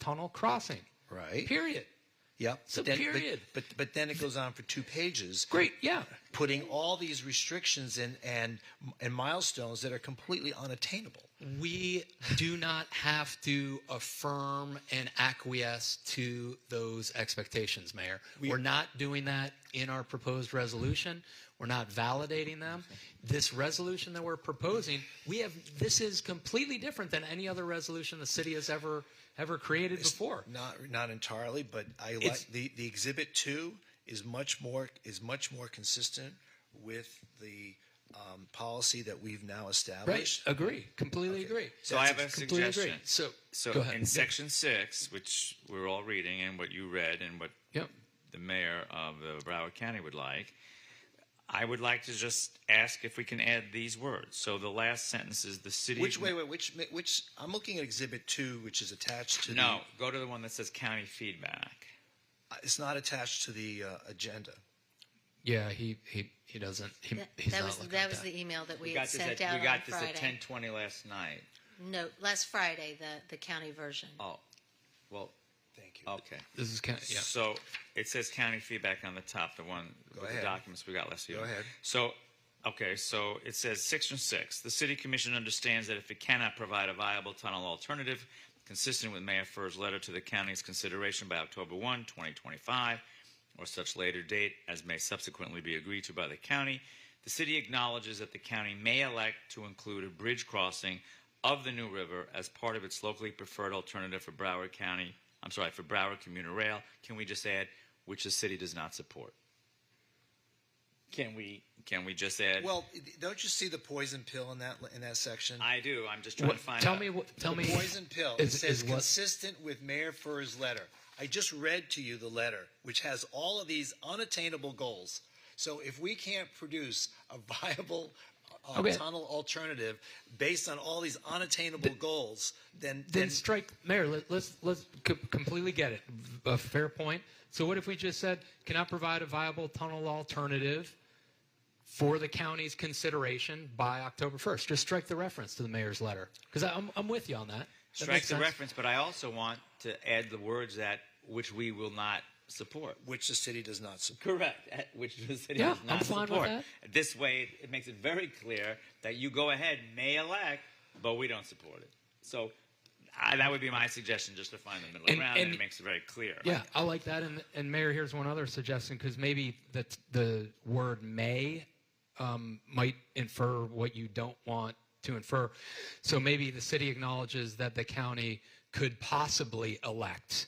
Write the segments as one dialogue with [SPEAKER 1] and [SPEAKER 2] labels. [SPEAKER 1] tunnel crossing.
[SPEAKER 2] Right.
[SPEAKER 1] Period.
[SPEAKER 2] Yep.
[SPEAKER 1] So
[SPEAKER 2] But then- but-
[SPEAKER 1] period.
[SPEAKER 2] But, but then it goes on for two pages.
[SPEAKER 1] Great. Yeah.
[SPEAKER 2] Putting all these restrictions and and and milestones that are completely unattainable.
[SPEAKER 3] we do not have to affirm and acquiesce to those expectations, Mayor. We, are not doing that in our proposed resolution. We're not validating them. This resolution that we're proposing, we have this is completely different than any other resolution the city has ever ever created before.
[SPEAKER 2] Not not entirely, but I
[SPEAKER 3] It's-
[SPEAKER 2] like the the exhibit two is much more is much more consistent with the um, policy that we've now
[SPEAKER 3] Right.
[SPEAKER 2] established.
[SPEAKER 3] Agree. Completely agree.
[SPEAKER 4] So I have a
[SPEAKER 3] Completely agree.
[SPEAKER 4] suggestion.
[SPEAKER 3] So,
[SPEAKER 4] So
[SPEAKER 3] go ahead.
[SPEAKER 4] in section six, which we're all reading and what you read and what
[SPEAKER 3] Yep.
[SPEAKER 4] the mayor of uh, Broward County would like, I would like to just ask if we can add these words. So the last sentence is the city.
[SPEAKER 2] Which wait, wait, which which I'm looking at exhibit two, which is attached to
[SPEAKER 4] No, go to the one that says county feedback.
[SPEAKER 2] the. Uh, It's not attached to the uh, agenda.
[SPEAKER 3] Yeah, he he he doesn't. He,
[SPEAKER 5] That,
[SPEAKER 3] he's
[SPEAKER 5] that
[SPEAKER 3] not
[SPEAKER 5] was
[SPEAKER 3] looking
[SPEAKER 5] that
[SPEAKER 3] at
[SPEAKER 5] was
[SPEAKER 3] that.
[SPEAKER 5] the email that
[SPEAKER 4] We
[SPEAKER 5] we, had
[SPEAKER 4] got this. At,
[SPEAKER 5] sent out
[SPEAKER 4] we got
[SPEAKER 5] on
[SPEAKER 4] this
[SPEAKER 5] Friday.
[SPEAKER 4] at ten twenty last night.
[SPEAKER 5] No, last Friday, the the county version.
[SPEAKER 4] Oh, well,
[SPEAKER 2] Thank you.
[SPEAKER 4] okay.
[SPEAKER 3] This is kind of yeah.
[SPEAKER 4] So it says county feedback on the top, the one with
[SPEAKER 2] ahead.
[SPEAKER 4] the documents we got last year.
[SPEAKER 2] Go ahead.
[SPEAKER 4] So, okay, so it says section six, the city commission understands that if it cannot provide a viable tunnel alternative consistent with Mayor Furr's letter to the county's consideration by October 1, 2025, or such later date as may subsequently be agreed to by the county, the city acknowledges that the county may elect to include a bridge crossing of the New River as part of its locally preferred alternative for Broward County, I'm sorry, for Broward Commuter Rail. Can we just add, which the city does not support? Can we? Can we just add?
[SPEAKER 2] Well, don't you see the poison pill in that in that section?
[SPEAKER 4] I do. I'm just trying
[SPEAKER 3] What-
[SPEAKER 4] to find.
[SPEAKER 3] tell
[SPEAKER 4] out.
[SPEAKER 3] me what. Tell me.
[SPEAKER 2] poison pill.
[SPEAKER 3] Is-
[SPEAKER 2] it says
[SPEAKER 3] is what-
[SPEAKER 2] consistent with Mayor Furr's letter. I just read to you the letter, which has all of these unattainable goals. So if we can't produce a viable uh,
[SPEAKER 3] Okay.
[SPEAKER 2] tunnel alternative based on all these unattainable goals, then
[SPEAKER 3] Then strike, Mayor. Let, let's let's c- completely get it. A fair point. So what if we just said cannot provide a viable tunnel alternative for the county's consideration by October first? Just strike the reference to the mayor's letter because I'm I'm with you on that. that
[SPEAKER 4] Strike
[SPEAKER 3] makes
[SPEAKER 4] the
[SPEAKER 3] sense.
[SPEAKER 4] reference, but I also want to add the words that which we will not support.
[SPEAKER 2] which the city does not support.
[SPEAKER 4] Correct. At Which the city
[SPEAKER 3] Yeah,
[SPEAKER 4] does not
[SPEAKER 3] I'm fine with
[SPEAKER 4] support. This way, it- it makes it very clear that you go ahead, may elect, but we don't support it. So I, that would be my suggestion, just to find the middle
[SPEAKER 3] And-
[SPEAKER 4] ground, and,
[SPEAKER 3] and-
[SPEAKER 4] it makes it very clear.
[SPEAKER 3] Yeah, I like that. And and Mayor, here's one other suggestion because maybe the the word may um, might infer what you don't want to infer. So maybe the city acknowledges that the county could possibly elect.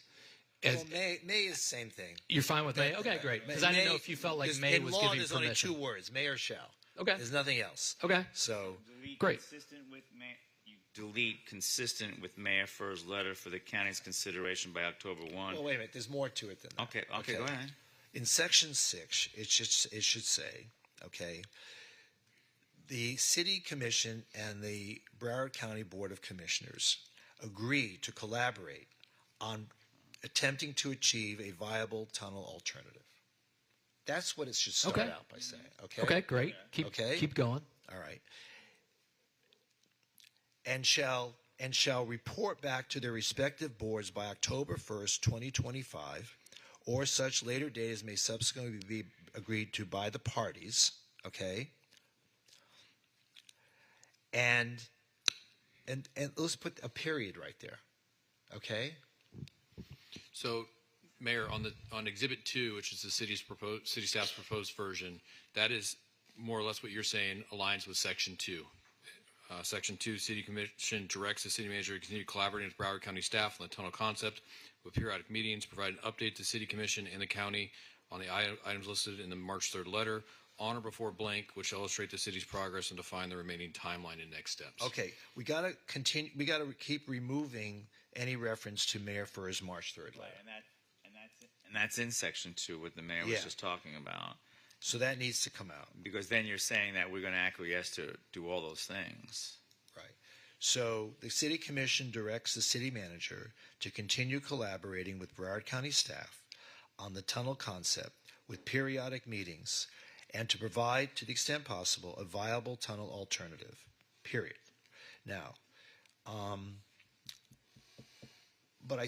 [SPEAKER 3] As,
[SPEAKER 2] Well, May, May is the same thing.
[SPEAKER 3] you're fine with may? Okay, great. Because I didn't know if you felt like
[SPEAKER 2] there's-
[SPEAKER 3] may
[SPEAKER 2] in
[SPEAKER 3] was
[SPEAKER 2] law,
[SPEAKER 3] giving
[SPEAKER 2] there's
[SPEAKER 3] permission.
[SPEAKER 2] only two words: May or shall.
[SPEAKER 3] Okay.
[SPEAKER 2] There's nothing else.
[SPEAKER 3] Okay.
[SPEAKER 2] So
[SPEAKER 4] Delete
[SPEAKER 3] Great.
[SPEAKER 4] Consistent with Mayor, you delete consistent with Mayor Furr's letter for the county's consideration by October one.
[SPEAKER 2] Well, oh, wait a minute. There's more to it than that.
[SPEAKER 4] Okay, okay, go ahead.
[SPEAKER 2] In section six, it should it should say, okay, the city commission and the Broward County Board of Commissioners agree to collaborate on attempting to achieve a viable tunnel alternative. That's what it should start
[SPEAKER 3] Okay.
[SPEAKER 2] out by saying.
[SPEAKER 3] Okay, great. Keep
[SPEAKER 2] Okay.
[SPEAKER 3] keep going.
[SPEAKER 2] All right. And shall and shall report back to their respective boards by October 1st, 2025, or such later date as may subsequently be agreed to by the parties, okay? And and and let's put a period right there. Okay?
[SPEAKER 6] So, Mayor, on the, on Exhibit 2, which is the city's proposed, city staff's proposed version, that is more or less what you're saying aligns with Section 2. Uh, Section 2, City Commission directs the city manager to continue collaborating with Broward County staff on the tunnel concept with periodic meetings, provide an update to City Commission and the county on the i- items listed in the March 3rd letter, on or before blank, which illustrate the city's progress and define the remaining timeline and next steps.
[SPEAKER 2] Okay, we got to continue we got to keep removing any reference to Mayor Furr's March 3rd letter.
[SPEAKER 4] And that, and that's, and that's in section two, what the mayor
[SPEAKER 2] Yeah.
[SPEAKER 4] was just talking about.
[SPEAKER 2] So that needs to come out.
[SPEAKER 4] Because then you're saying that we're going to acquiesce to do all those things.
[SPEAKER 2] Right. So the city commission directs the city manager to continue collaborating with Broward County staff on the tunnel concept with periodic meetings and to provide, to the extent possible, a viable tunnel alternative, period. Now, um, but I